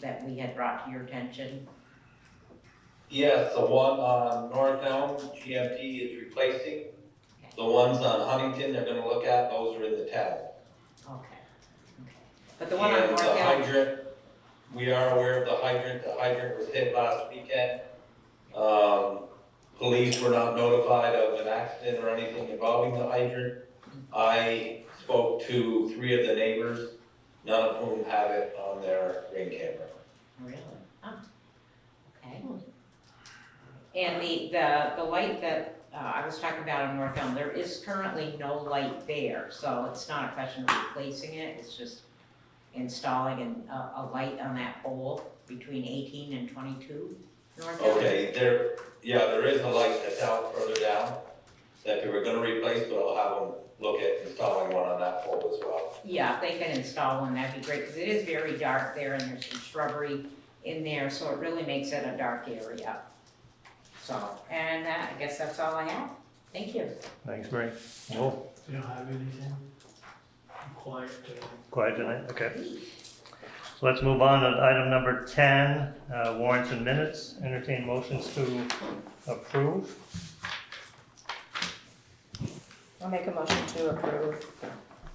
that we had brought to your attention. Yes, the one on Northtown, GMT is replacing. The ones on Huntington, they're gonna look at, those are in the tab. Okay, okay. But the one on And North the Elm, hydrant, we are aware of the hydrant, the hydrant was hit last weekend. Um, police were not notified of an accident or anything involving the hydrant. I spoke to three of the neighbors, none of whom have it on their ring camera. really? Oh, okay. And the, the, the light that, uh, I was talking about on North Elm, there is currently no light there, so it's not a question of replacing it, it's just installing an, a, a light on that pole between eighteen and twenty-two North Elm. Okay, there, yeah, there is a light that's out further down that they were gonna replace, but I'll have them look at installing one on that pole as well. Yeah, if they can install one, that'd be great, because it is very dark there and there's some shrubbery in there, so it really makes it a dark area. So, and uh, I guess that's all I have. Thank you. Thanks, Oh, Mary. No, You don't have anything? I'm quiet today. quiet tonight, okay. So let's move on to item number ten, uh, warrants and minutes, entertain motions to approve. I'll make a motion to approve,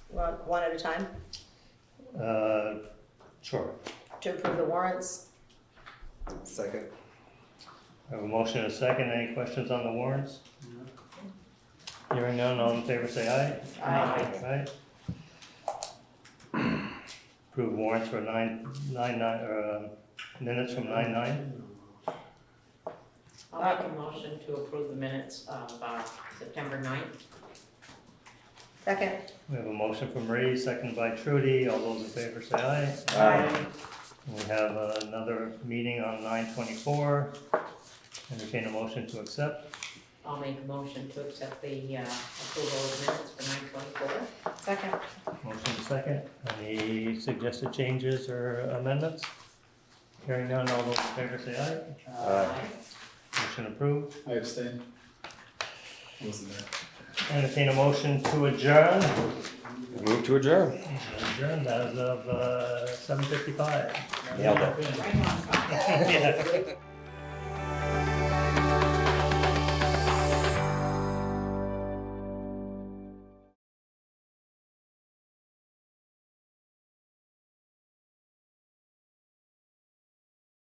one, one at a time, Uh, Sure, to approve the warrants. Second. I have a motion and a second, any questions on the warrants? Hearing none, all in favor say aye. Aye. Aye. Approve warrants for nine, nine, nine, or, um, minutes from nine nine. I'll make a motion to approve the minutes of uh, September 9th. Second, We have a motion from Marie, second by Trudy, all those in favor say aye. Aye. We have another meeting on nine twenty-four. Entertain a motion to accept. I'll make a motion to accept the uh, approval of minutes for 9:24. second, Motion second. Any suggested changes or amendments? Hearing none, all those in favor say aye. Motion approved. I abstain. Wasn't there. Entertain a motion to adjourn. Move to adjourn. Adjourned as of uh, seven fifty-five. Nailed it. Right on. Yeah.